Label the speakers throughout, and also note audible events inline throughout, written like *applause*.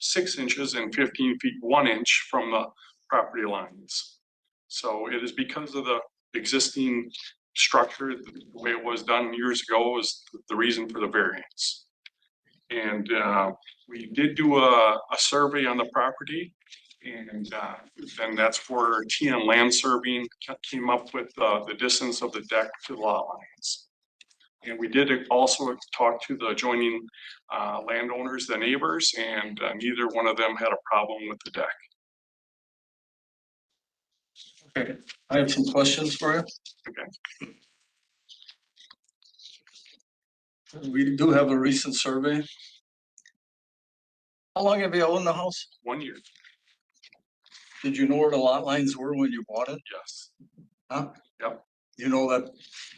Speaker 1: six inches and fifteen feet one inch from the property lines. So it is because of the existing structure, the way it was done years ago was the reason for the variance. And uh, we did do a, a survey on the property and uh, then that's where TN Land Serving ca- came up with uh, the distance of the deck to the lot lines. And we did also talk to the adjoining uh, landowners, the neighbors, and uh, neither one of them had a problem with the deck.
Speaker 2: Okay, I have some questions for you. Okay. We do have a recent survey. How long have you owned the house?
Speaker 1: One year,
Speaker 2: Did you know where the lot lines were when you bought it?
Speaker 1: yes,
Speaker 2: You know that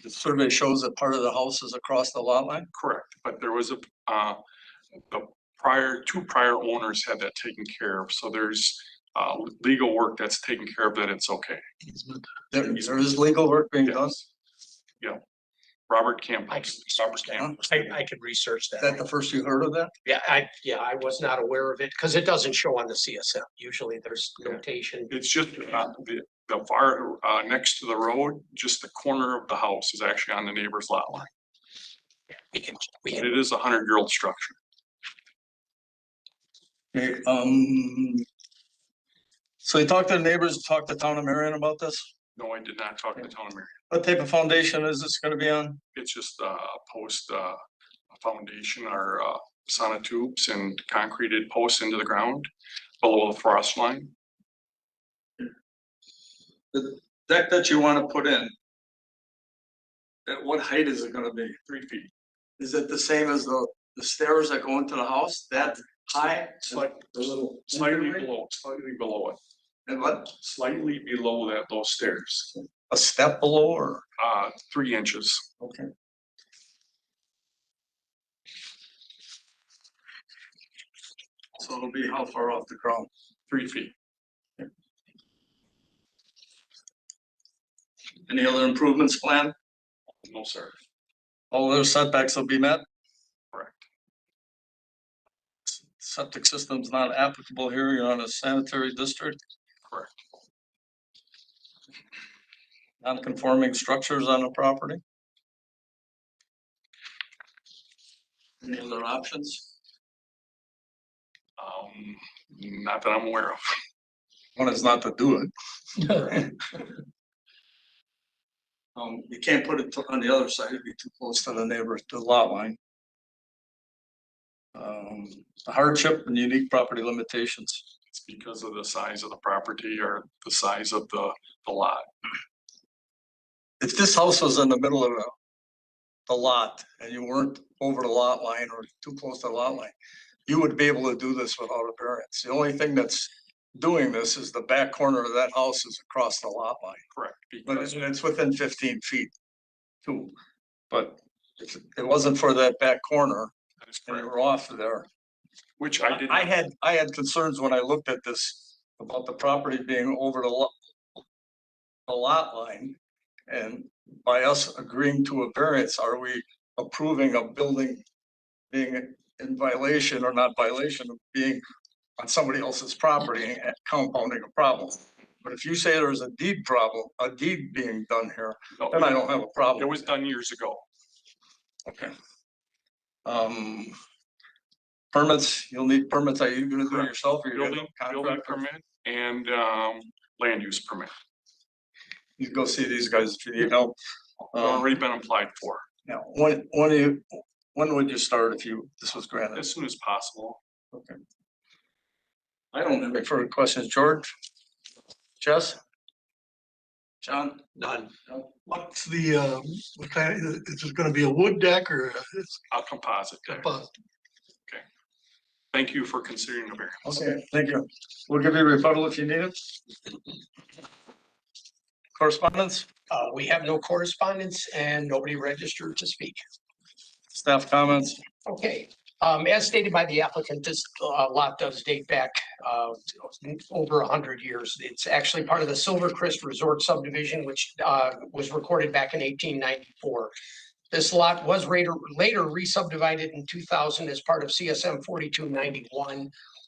Speaker 2: the survey shows that part of the house is across the lot line?
Speaker 1: correct. But there was a, uh, the prior, two prior owners had that taken care of. So there's uh, legal work that's taken care of that it's okay.
Speaker 2: There, there is legal work being done? Is
Speaker 1: Yes. Yeah. Robert Campos. Robert Campos.
Speaker 3: I, I could research
Speaker 2: that
Speaker 3: that.
Speaker 2: the first you heard of that?
Speaker 3: Yeah, I, yeah, I was not aware of it because it doesn't show on the CSM. Usually there's
Speaker 1: Yeah.
Speaker 3: notation.
Speaker 1: It's just uh, the, the far, uh, next to the road, just the corner of the house is actually on the neighbor's lot line.
Speaker 3: We can, we
Speaker 1: And
Speaker 3: can,
Speaker 1: it is a hundred-year-old structure.
Speaker 2: Okay, um. So you talked to the neighbors, talked to town of Marion about this?
Speaker 1: No, I did not talk to Tony Marion.
Speaker 2: What type of foundation is this gonna be on?
Speaker 1: It's just uh, a post, uh, a foundation or uh, sonotubes and concreted posts into the ground below the frost line.
Speaker 2: deck that you want to put in, at what height is it gonna be? Three feet. Is it the same as the, the stairs that go into the house, that high?
Speaker 1: Slight-
Speaker 2: The little-
Speaker 1: Slightly below, slightly below it,
Speaker 2: And what?
Speaker 1: slightly below that, those stairs,
Speaker 2: A step below or?
Speaker 1: uh, three inches.
Speaker 2: Okay. So it'll be how far off the ground?
Speaker 1: three feet.
Speaker 2: Any other improvements planned?
Speaker 1: No, sir.
Speaker 2: All those setbacks will be met?
Speaker 1: Correct.
Speaker 2: S- Septic system's not applicable here, you're on a sanitary district?
Speaker 1: Correct.
Speaker 2: Non-conforming structures on the property? Any other options?
Speaker 1: Um, not that I'm aware of.
Speaker 2: One is not to do it. *laughs* Um, you can't put it to- on the other side, it'd be too close to the neighbor, to the lot line. Um, hardship and unique property limitations.
Speaker 1: It's because of the size of the property or the size of the, the lot.
Speaker 2: If this house was in the middle of the, the lot and you weren't over the lot line or too close to the lot line, you would be able to do this without a variance. The only thing that's doing this is the back corner of that house is across the lot line.
Speaker 1: Correct.
Speaker 2: But it's,
Speaker 1: Because,
Speaker 2: it's within fifteen feet too. But if it wasn't for that back corner
Speaker 1: that is
Speaker 2: and you
Speaker 1: correct,
Speaker 2: were off of there.
Speaker 1: which I did,
Speaker 2: I had, I had concerns when I looked at this about the property being over the lot. The lot line and by us agreeing to a variance, are we approving a building? Being in violation or not violation of being on somebody else's property and compounding a problem. But if you say there's a deed problem, a deed being done here,
Speaker 1: no,
Speaker 2: then I don't have a problem.
Speaker 1: it was done years ago.
Speaker 2: Okay. Um. Permits, you'll need permits. Are you gonna do it
Speaker 1: Correct.
Speaker 2: yourself or you're
Speaker 1: Building,
Speaker 2: gonna
Speaker 1: building
Speaker 2: contract?
Speaker 1: permit and, um, land use permit.
Speaker 2: You go see these guys if you need help. Um,
Speaker 1: Already been applied for
Speaker 2: now, when, when do you, when would you start if you, this was granted?
Speaker 1: as soon as possible.
Speaker 2: I don't have any further questions. George? Jess? John?
Speaker 3: none.
Speaker 4: What's the, um, what kind, is it gonna be a wood deck or a- it's
Speaker 1: I'll composite
Speaker 4: a
Speaker 1: there.
Speaker 4: bus?
Speaker 1: Thank you for considering the variance.
Speaker 2: Okay, thank you. We'll give you a rebuttal if you need it. Correspondence,
Speaker 3: Uh, we have no correspondence and nobody registered to speak.
Speaker 2: staff comments,
Speaker 3: Okay, um, as stated by the applicant, this uh, lot does date back uh, over a hundred years. It's actually part of the Silver Crest Resort subdivision, which uh, was recorded back in eighteen ninety-four. This lot was later, later re-subdivided in two thousand as part of CSM forty-two ninety-one.